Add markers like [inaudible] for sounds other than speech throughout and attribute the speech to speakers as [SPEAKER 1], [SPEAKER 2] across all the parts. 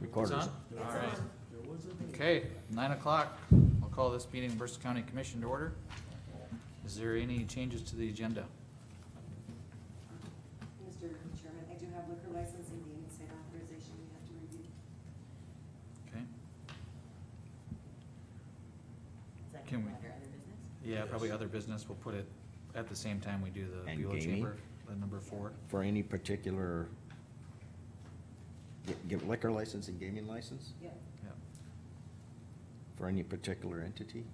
[SPEAKER 1] Recorder's
[SPEAKER 2] It's on? All right. Okay, nine o'clock. I'll call this meeting of Bristol County Commission to order. Is there any changes to the agenda?
[SPEAKER 3] Mr. Chairman, I do have liquor license and gaming site authorization we have to review.
[SPEAKER 2] Okay,
[SPEAKER 4] Is that
[SPEAKER 2] Can we-
[SPEAKER 4] under other business?
[SPEAKER 2] yeah, probably other business. We'll put it at the same time we do the
[SPEAKER 1] And
[SPEAKER 2] Bueller
[SPEAKER 1] gaming?
[SPEAKER 2] Chamber, the number four.
[SPEAKER 1] For any particular, get- get liquor license and gaming license
[SPEAKER 3] Yep.
[SPEAKER 2] Yeah.
[SPEAKER 1] for any particular entity?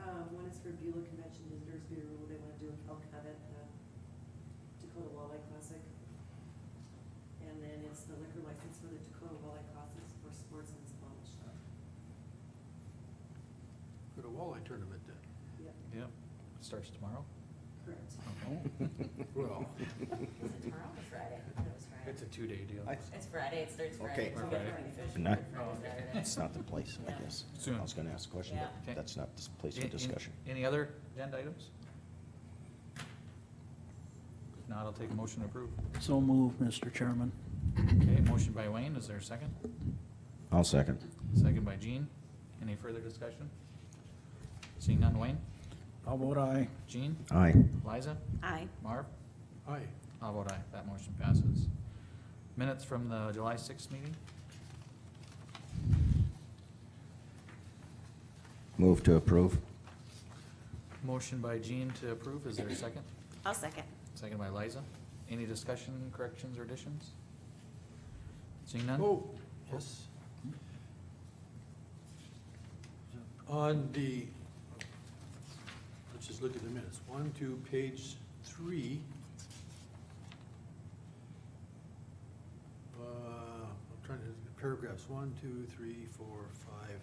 [SPEAKER 3] Um, one is for Beulah Convention Visitors Bureau, they wanna do an elk hunt at the Dakota Walleye Classic. And then it's the liquor license for the Dakota Walleye Classic for sports and salon shop.
[SPEAKER 5] Go to walleye tournament then.
[SPEAKER 3] Yep,
[SPEAKER 2] Yep, starts tomorrow.
[SPEAKER 3] correct.
[SPEAKER 2] Oh,
[SPEAKER 5] Well,
[SPEAKER 4] Is it tomorrow or Friday? I thought it was Friday.
[SPEAKER 2] It's a two-day deal.
[SPEAKER 1] I-
[SPEAKER 4] It's Friday, it starts
[SPEAKER 1] Okay.
[SPEAKER 4] Friday. It's
[SPEAKER 2] Or
[SPEAKER 4] Good
[SPEAKER 2] Friday.
[SPEAKER 4] Friday. Fish
[SPEAKER 1] Not-
[SPEAKER 4] Good Friday,
[SPEAKER 2] Oh, okay.
[SPEAKER 4] Saturday.
[SPEAKER 1] That's not the place, I
[SPEAKER 4] Yeah.
[SPEAKER 1] guess.
[SPEAKER 2] Soon.
[SPEAKER 1] I was gonna ask a question,
[SPEAKER 2] Okay.
[SPEAKER 1] but that's not the place
[SPEAKER 2] Any-
[SPEAKER 1] for
[SPEAKER 2] any-
[SPEAKER 1] discussion.
[SPEAKER 2] Any other agenda items? If not, I'll take a motion to approve.
[SPEAKER 6] So move, Mr. Chairman.
[SPEAKER 2] Okay, motion by Wayne. Is there a second?
[SPEAKER 1] I'll second.
[SPEAKER 2] Second by Jean. Any further discussion? Seeing none, Wayne?
[SPEAKER 6] How about I?
[SPEAKER 2] Jean?
[SPEAKER 1] Aye.
[SPEAKER 2] Liza?
[SPEAKER 3] Aye.
[SPEAKER 2] Marv?
[SPEAKER 5] aye,
[SPEAKER 2] I'll vote aye. That motion passes. Minutes from the July sixth meeting?
[SPEAKER 1] Move to approve.
[SPEAKER 2] Motion by Jean to approve. Is there a second?
[SPEAKER 3] I'll second.
[SPEAKER 2] Second by Liza. Any discussion, corrections, or additions? Seeing none?
[SPEAKER 5] oh, yes. On the, let's just look at the minutes, one, two, page three. Uh, I'm trying to, paragraphs, one, two, three, four, five.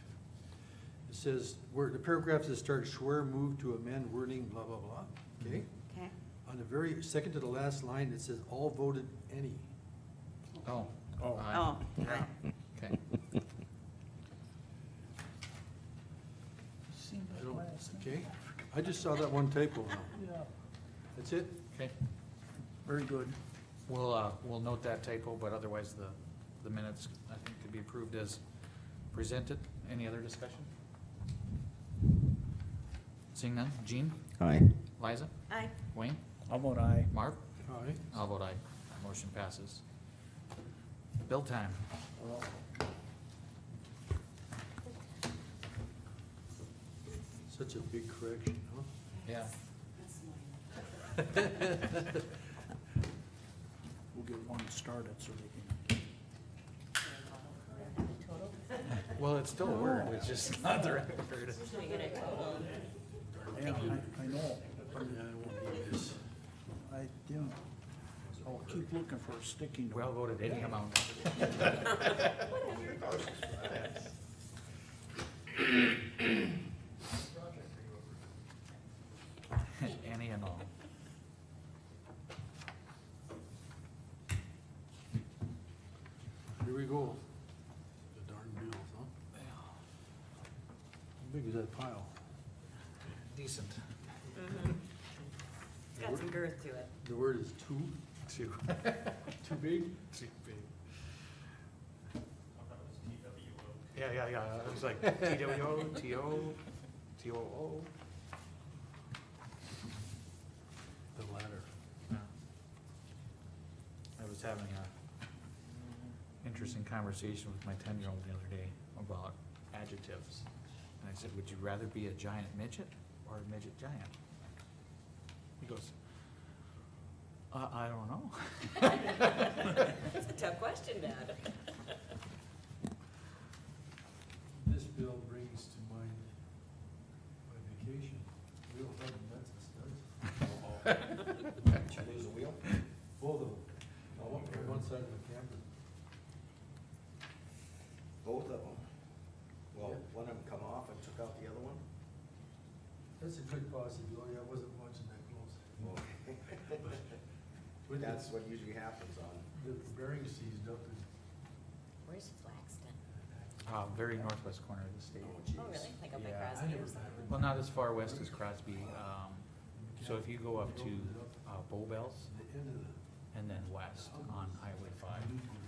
[SPEAKER 5] It says, where, the paragraphs that start Schwer moved to amend wording, blah, blah, blah, okay?
[SPEAKER 3] Okay.
[SPEAKER 5] On the very, second to the last line, it says, all voted any.
[SPEAKER 2] Oh. Aye.
[SPEAKER 3] Oh,
[SPEAKER 5] Yeah.
[SPEAKER 2] Okay.
[SPEAKER 5] I don't, okay, I just saw that one typo now. That's it?
[SPEAKER 2] Okay.
[SPEAKER 6] Very good.
[SPEAKER 2] We'll, uh, we'll note that typo, but otherwise the, the minutes, I think, could be approved as presented. Any other discussion? Seeing none, Jean,
[SPEAKER 1] Aye.
[SPEAKER 2] Liza,
[SPEAKER 3] Aye.
[SPEAKER 2] Wayne,
[SPEAKER 6] How about I?
[SPEAKER 2] Marv,
[SPEAKER 5] All right.
[SPEAKER 2] I'll vote aye, motion passes. Bill time,
[SPEAKER 5] Such a big correction, huh?
[SPEAKER 2] yeah,
[SPEAKER 3] That's mine.
[SPEAKER 6] We'll get one started so they can.
[SPEAKER 4] Total?
[SPEAKER 2] well, it's still a word, it's just [laughs] not the right word.
[SPEAKER 4] Should we get a total?
[SPEAKER 6] Yeah, I, I know.
[SPEAKER 5] Yeah, I won't need this.
[SPEAKER 6] I, yeah. I'll keep looking for a sticking.
[SPEAKER 2] Well voted, any [coughs] amount, any and all.
[SPEAKER 5] Here we go. The darn bills, huh? How big is that pile?
[SPEAKER 2] Decent.
[SPEAKER 4] It's got some girth to it.
[SPEAKER 5] The word is too,
[SPEAKER 2] Two.
[SPEAKER 5] too big?
[SPEAKER 2] Yeah, yeah, yeah, it was like T W O, T O, T O O.
[SPEAKER 5] The latter.
[SPEAKER 2] Yeah. I was having a interesting conversation with my ten-year-old the other day about adjectives. And I said, would you rather be a giant midget or a midget giant? He goes, uh, I don't know.
[SPEAKER 4] That's a tough question, Dad.
[SPEAKER 5] This bill brings to mind my vacation. Wheel head and nuts and
[SPEAKER 1] [laughs]
[SPEAKER 5] studs. Did you lose a wheel? Both of them. Uh, One on one side of the camper.
[SPEAKER 1] Both of them. Well, one of them come off and took out the other [laughs] one?
[SPEAKER 5] That's a good possibility. I wasn't watching that close.
[SPEAKER 1] [laughs]
[SPEAKER 5] With the,
[SPEAKER 1] That's what usually happens on.
[SPEAKER 5] the bearing seized up and
[SPEAKER 4] Where's Flaxton?
[SPEAKER 2] Uh, very northwest corner of the state.
[SPEAKER 4] Oh, really? Like up by
[SPEAKER 2] Yeah, I
[SPEAKER 4] Crosby
[SPEAKER 5] never
[SPEAKER 4] or something?
[SPEAKER 2] Well, not as far west as Crosby, um, so if you go up to, uh, Bow Bells
[SPEAKER 5] the end of the.
[SPEAKER 2] and then west on Highway five. uh,